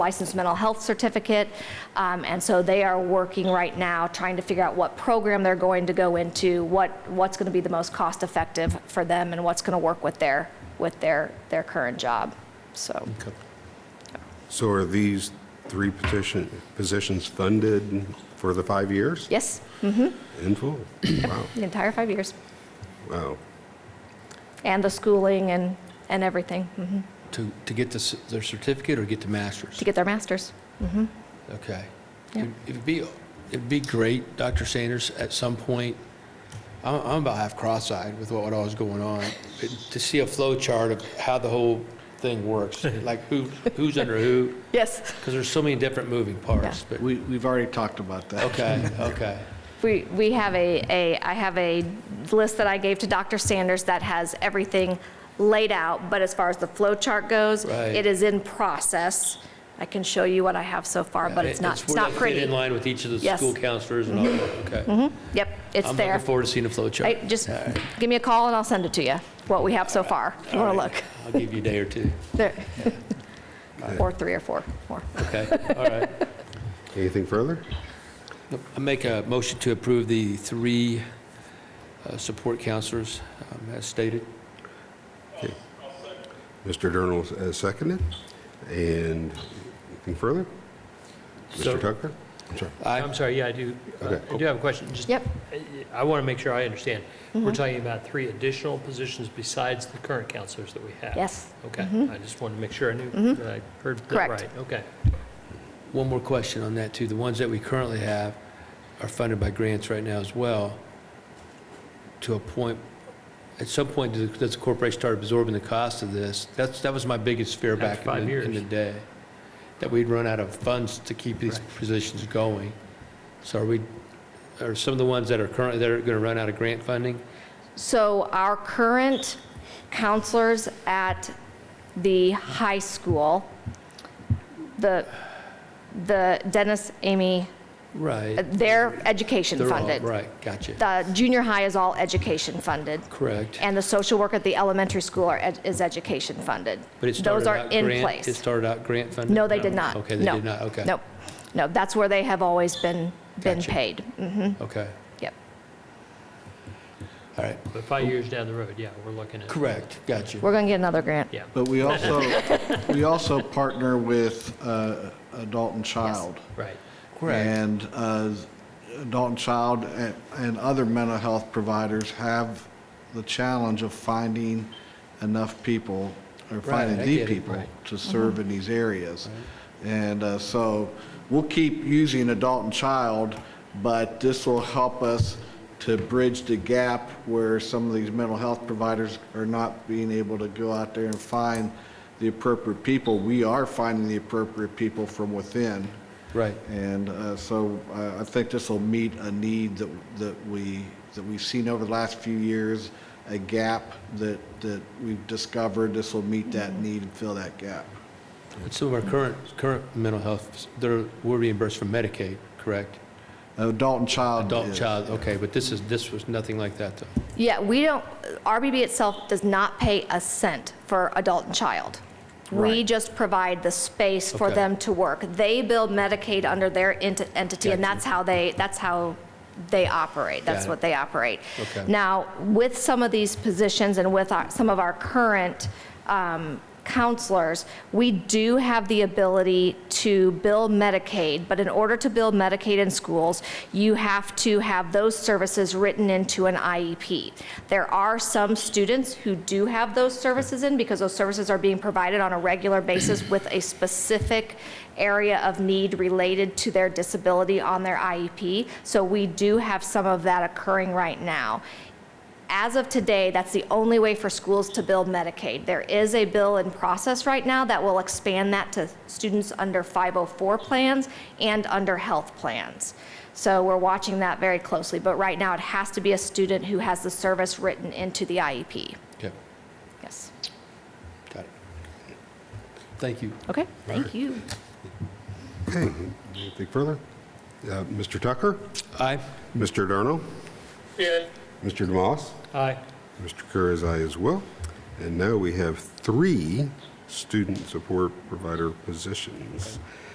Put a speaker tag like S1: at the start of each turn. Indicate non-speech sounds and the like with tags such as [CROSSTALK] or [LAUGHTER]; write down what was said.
S1: licensed mental health certificate. Um, And so they are working right now, trying to figure out what program they're going to go into, what, what's going to be the most cost-effective for them, and what's going to work with their, with their, their current job, so.
S2: So are these three petition, positions funded for the five years?
S1: Yes,
S2: In full? Wow,
S1: the entire five years,
S2: wow.
S1: and the schooling and, and everything, mhm,
S3: To, to get the c- their certificate or get the master's?
S1: to get their masters.
S3: Okay.
S1: Yeah.
S3: It- It'd be, it'd be great, Dr. Sanders, at some point, I'm, I'm about half cross-eyed with what all is going on, but to see a flow chart of how the whole thing works, like who, who's under who,
S1: Yes.
S3: because there's so many different moving parts, but,
S4: We, we've already talked about that.
S3: okay, okay.
S1: We, we have a, a, I have a list that I gave to Dr. Sanders that has everything laid out, but as far as the flow chart goes,
S3: Right.
S1: it is in process. I can show you what I have so far, but it's not, it's
S3: where
S1: not
S3: they fit
S1: pretty.
S3: in line with each of the
S1: Yes.
S3: school counselors and all that, okay.
S1: Yep, it's
S3: I'm
S1: there.
S3: looking forward to seeing the flow chart.
S1: Hey, Just give me a call and I'll send it to you, what we have so far, if you want to look. [LAUGHS]
S3: I'll give you a day or two,
S1: There. Or three or four, four. [LAUGHS]
S3: okay, all right.
S2: Anything further?
S3: I make a motion to approve the three uh, support counselors um, as stated.
S2: Mr. Durnall has seconded. And anything further?
S5: So-
S2: Mr. Tucker? I'm sorry.
S3: Aye.
S5: I'm sorry, yeah, I do, uh,
S2: Okay.
S5: I do have a question. Just-
S1: Yep. Mm-hmm.
S5: I- I want to make sure I understand. We're talking about three additional positions besides the current counselors that we have?
S1: Yes. Mm-hmm.
S5: Okay, I just wanted to make sure I knew, that I heard that
S1: Correct.
S5: right. Okay.
S3: One more question on that, too. The ones that we currently have are funded by grants right now as well. To a point, at some point, does does the corporation start absorbing the cost of this? That's, that was my biggest fear
S5: After
S3: back
S5: five
S3: in the- in
S5: years.
S3: the day, that we'd run out of funds to keep these positions going. So are we, are some of the ones that are currently, that are going to run out of grant funding?
S1: So our current counselors at the high school, the, the Dennis, Amy, Uh,
S3: Right.
S1: they're education
S3: They're all-
S1: funded.
S3: Right, gotcha.
S1: The junior high is all education funded.
S3: Correct.
S1: And the social work at the elementary school are, ed- is education funded.
S3: But it started
S1: Those are
S3: out
S1: in
S3: grant-
S1: place.
S3: It started out grant funded?
S1: No, they did not.
S3: Okay, they
S1: No.
S3: did not, okay.
S1: Nope. No, that's where they have always been, been
S3: Gotcha.
S1: paid. Mm,
S3: Okay,
S1: Yep.
S3: all right.
S5: But five years down the road, yeah, we're looking at.
S3: Correct, got you.
S1: We're going to get another grant.
S5: Yeah.
S4: But we also, we also partner with uh, Adult and Child.
S5: Right.
S3: Correct,
S4: And uh, Adult and Child and- and other mental health providers have the challenge of finding enough people, or finding
S3: I
S4: the
S3: get it,
S4: people
S3: right. Mm-hmm.
S4: to serve in these areas. And uh, so we'll keep using Adult and Child, but this will help us to bridge the gap where some of these mental health providers are not being able to go out there and find the appropriate people. We are finding the appropriate people from within.
S3: right.
S4: And uh, so uh, I think this will meet a need that, that we, that we've seen over the last few years, a gap that, that we've discovered. This will meet that
S3: Mm-hmm.
S4: need and fill that gap.
S3: But some of our current, current mental health, they're, we're reimbursed from Medicaid, correct?
S4: Uh, Adult and child.
S3: Adult,
S4: is-
S3: child, okay, but this is, this was nothing like that, though.
S1: Yeah, we don't, RBB itself does not pay a cent for adult and child. We
S4: Right.
S1: just provide the space for
S3: Okay.
S1: them to work. They build Medicaid under their ent- entity, and
S3: Gotcha.
S1: that's how they, that's how they operate. That's
S3: Got it.
S1: what they operate.
S3: Okay.
S1: Now, with some of these positions and with our- some of our current um, counselors, we do have the ability to bill Medicaid, but in order to bill Medicaid in schools, you have to have those services written into an IEP. There are some students who do have those services in because those services are being provided on a regular basis with a specific area of need related to their disability on their IEP. So we do have some of that occurring right now. As of today, that's the only way for schools to build Medicaid. There is a bill in process right now that will expand that to students under 504 plans and under health plans. So we're watching that very closely, but right now it has to be a student who has the service written into the IEP.
S3: Okay,
S1: Yes.
S3: got it. Thank you.
S1: Okay, thank you.
S2: Okay, anything further? Uh, Mr. Tucker?
S3: Aye,
S2: Mr. Durnall? Mr. DeMoss?
S5: Aye.
S2: Mr. Kerr is aye as well. And now we have three student support provider positions.